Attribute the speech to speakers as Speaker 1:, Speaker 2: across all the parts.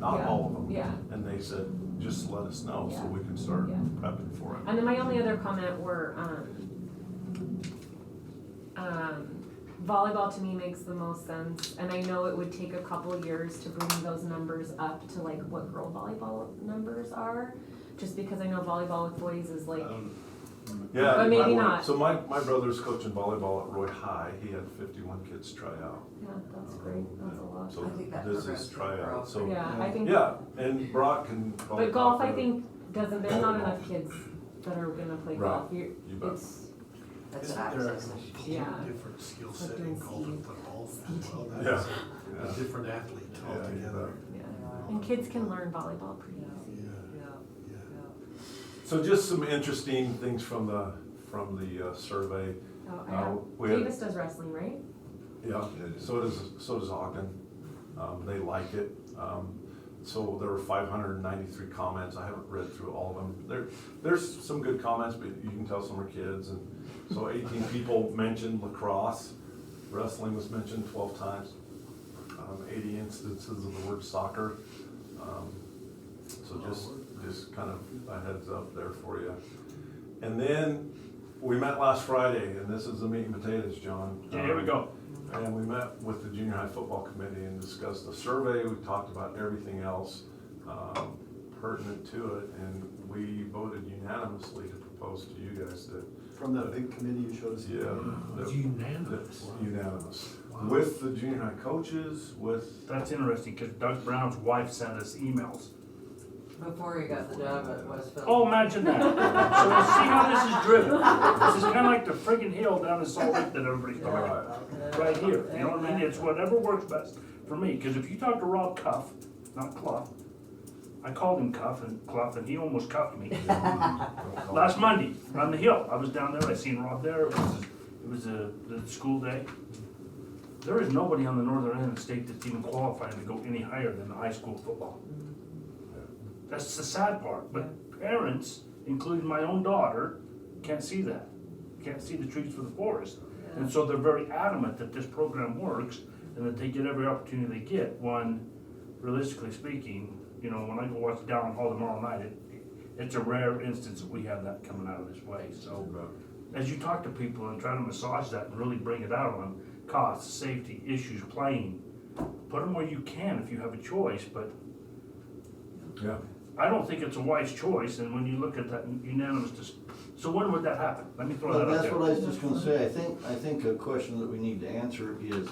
Speaker 1: not
Speaker 2: Yeah.
Speaker 1: all of them.
Speaker 2: Yeah,
Speaker 1: And they said, just let us know so
Speaker 2: Yeah.
Speaker 1: we can start
Speaker 2: Yeah.
Speaker 1: prepping for it.
Speaker 2: and then my only other comment were, um, um, volleyball to me makes the most sense, and I know it would take a couple years to bring those numbers up to like what girl volleyball numbers are, just because I know volleyball with boys is like,
Speaker 1: Yeah.
Speaker 2: But
Speaker 1: I
Speaker 2: maybe
Speaker 1: would-
Speaker 2: not.
Speaker 1: So my, my brother's coaching volleyball at Roy High. He had fifty-one kids try out.
Speaker 2: yeah, that's great, that's a lot.
Speaker 1: So
Speaker 3: I think that
Speaker 1: this
Speaker 3: progress
Speaker 1: is
Speaker 3: would grow.
Speaker 1: tryout, so,
Speaker 2: Yeah, I think,
Speaker 1: yeah, and Brock can. probably
Speaker 2: but golf,
Speaker 1: talk
Speaker 2: I
Speaker 1: to-
Speaker 2: think, doesn't, there's not enough kids that are gonna play golf, you
Speaker 1: You bet.
Speaker 2: it's,
Speaker 3: That's
Speaker 4: Isn't there a
Speaker 3: access.
Speaker 4: completely
Speaker 2: Yeah.
Speaker 4: different skill
Speaker 2: But
Speaker 4: set
Speaker 2: then
Speaker 4: in golf and football as well?
Speaker 1: Yeah.
Speaker 4: That's
Speaker 1: Yeah.
Speaker 4: a different athlete
Speaker 1: Yeah,
Speaker 4: altogether.
Speaker 2: yeah, and kids can learn volleyball pretty easy.
Speaker 4: Yeah,
Speaker 3: Yeah,
Speaker 4: yeah.
Speaker 3: yeah.
Speaker 1: So just some interesting things from the, from the uh, survey.
Speaker 2: Oh, I
Speaker 1: Uh,
Speaker 2: have,
Speaker 1: we had-
Speaker 2: Davis does wrestling, right?
Speaker 1: Yeah, so does, so does Ogden. Um, they like it. Um, so there were five hundred and ninety-three comments. I haven't read through all of them. There, there's some good comments, but you can tell some are kids and so eighteen people mentioned lacrosse. Wrestling was mentioned twelve times. Um, eighty instances of the word soccer. Um, So just, just kind of a heads up there for you. And then, we met last Friday and this is the meat and potatoes, John. Um,
Speaker 5: Yeah, here we go.
Speaker 1: And we met with the junior high football committee and discussed the survey, we talked about everything else um, pertinent to it, and we voted unanimously to propose to you guys that,
Speaker 6: From that big committee you showed us.
Speaker 1: yeah,
Speaker 4: It's
Speaker 1: that-
Speaker 4: unanimous.
Speaker 1: that's unanimous.
Speaker 4: Wow.
Speaker 1: With the junior high coaches, with,
Speaker 5: That's interesting, because Doug Brown's wife sent us emails.
Speaker 3: Before he got the job at Westfield.
Speaker 5: Oh, imagine that. So you see how this is driven. This is kind of like the friggin' hill down in Salt Lake that everybody's
Speaker 3: Yeah.
Speaker 1: uh,
Speaker 5: talking about. right here. You know what I mean? It's whatever works best for me. Because if you talk to Rob Cuff, not Clough, I called him Cuff and Clough, and he almost cuffed me last Monday on the hill. I was down there. I seen Rob there. It was it was a, the school day. There is nobody on the northern end of the state that's even qualifying to go any higher than the high school football. That's the sad part. But parents, including my own daughter, can't see that. Can't see the trees for the forest. And so they're very adamant that this program works and that they get every opportunity they get. One, realistically speaking, you know, when I go watch Down Hall tomorrow night, it, it's a rare instance that we have that coming out of this way. So as you talk to people and try to massage that and really bring it out on costs, safety, issues, playing, put them where you can if you have a choice, but
Speaker 1: yeah,
Speaker 5: I don't think it's a wise choice, and when you look at that unanimous, dis- so when would that happen? Let me throw
Speaker 6: Well,
Speaker 5: that out
Speaker 6: that's
Speaker 5: there.
Speaker 6: what I was just gonna say, I think, I think a question that we need to answer is,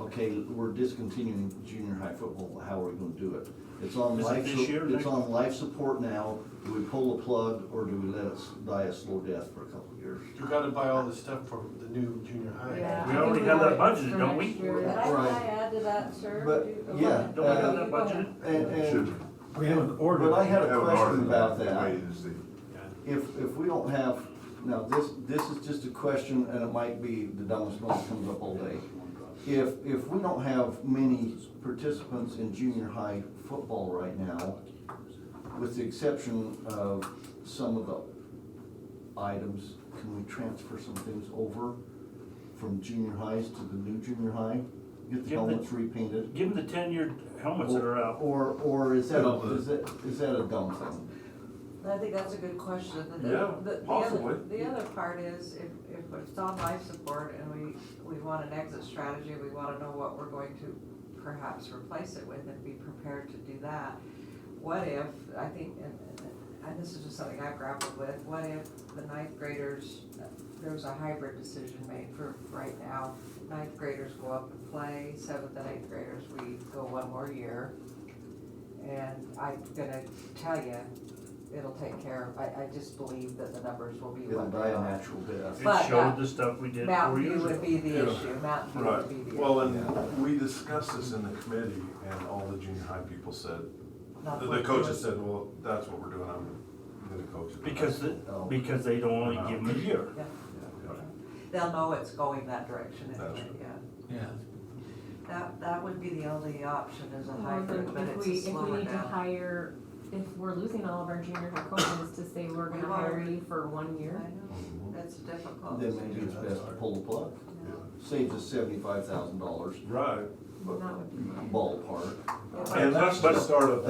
Speaker 6: okay, we're discontinuing junior high football, how are we gonna do it? It's on
Speaker 5: Is it
Speaker 6: life,
Speaker 5: this year,
Speaker 6: su- it's
Speaker 5: next-
Speaker 6: on life support now, do we pull the plug, or do we let us die a slow death for a couple of years?
Speaker 4: You gotta buy all the stuff for the new junior high.
Speaker 2: Yeah.
Speaker 5: We already have that budgeted, don't we?
Speaker 3: Could
Speaker 2: we?
Speaker 3: I,
Speaker 6: Right.
Speaker 3: I add to that, sir?
Speaker 6: But,
Speaker 3: Do you- go
Speaker 6: yeah,
Speaker 3: ahead.
Speaker 5: Don't we have
Speaker 6: Uh,
Speaker 5: that budgeted?
Speaker 6: And, and,
Speaker 7: We have an order.
Speaker 6: but I had
Speaker 7: We have
Speaker 6: a
Speaker 7: an
Speaker 6: question
Speaker 7: order.
Speaker 6: about that.
Speaker 7: Wait and see.
Speaker 6: If, if we don't have, now, this, this is just a question, and it might be the dumbest one that comes up all day. If, if we don't have many participants in junior high football right now, with the exception of some of the items, can we transfer some things over from junior highs to the new junior high? Get the
Speaker 5: Give the-
Speaker 6: helmets repainted?
Speaker 5: Give them the ten-year helmets that are out.
Speaker 6: Uh, Or, or is that, a- is that, is that a dumb thing?
Speaker 3: I think that's a good question. The- the-
Speaker 1: Yeah,
Speaker 3: the- the other-
Speaker 1: possibly.
Speaker 3: The other part is, if, if it's on life support and we, we want an exit strategy, we wanna know what we're going to perhaps replace it with and be prepared to do that. What if, I think, and, and- and this is just something I grappled with, what if the ninth graders, there was a hybrid decision made for right now. Ninth graders go up and play, seventh and eighth graders, we go one more year. And I'm gonna tell you, it'll take care of, I, I just believe that the numbers will be
Speaker 6: It'll
Speaker 3: what they
Speaker 6: die a
Speaker 3: are.
Speaker 6: natural death.
Speaker 3: But,
Speaker 5: It
Speaker 3: uh,
Speaker 5: showed the stuff we did four
Speaker 3: Mountain View
Speaker 5: years
Speaker 3: would
Speaker 5: ago.
Speaker 3: be the
Speaker 1: Yeah.
Speaker 3: issue, Mountain View
Speaker 1: right.
Speaker 3: would be the issue.
Speaker 1: Well, and we discussed this in the committee and all the junior high people said,
Speaker 3: Not
Speaker 1: the- the
Speaker 3: what-
Speaker 1: coaches said, well, that's what we're doing, I'm gonna coach it.
Speaker 5: Because, the- because they don't only give them a year.
Speaker 3: Yeah,
Speaker 1: Yeah.
Speaker 3: They'll know it's going that direction
Speaker 1: That's
Speaker 3: anyway,
Speaker 1: right.
Speaker 3: yeah.
Speaker 4: Yeah.
Speaker 3: That, that would be the only option is a
Speaker 2: Well,
Speaker 3: hybrid,
Speaker 2: then
Speaker 3: but
Speaker 2: um, If
Speaker 3: it's
Speaker 2: we,
Speaker 3: a
Speaker 2: if we
Speaker 3: slower
Speaker 2: need to
Speaker 3: down.
Speaker 2: hire, if we're losing all of our junior high coaches to say we're
Speaker 3: We
Speaker 2: gonna
Speaker 3: are.
Speaker 2: hire you for one
Speaker 3: I
Speaker 2: year.
Speaker 3: know, that's difficult.
Speaker 6: Then maybe it's best to pull the plug.
Speaker 3: Yeah.
Speaker 6: Saves us seventy-five thousand dollars
Speaker 1: Right,
Speaker 2: That would be.
Speaker 6: ballpark.
Speaker 3: Yeah.
Speaker 1: and that's the start of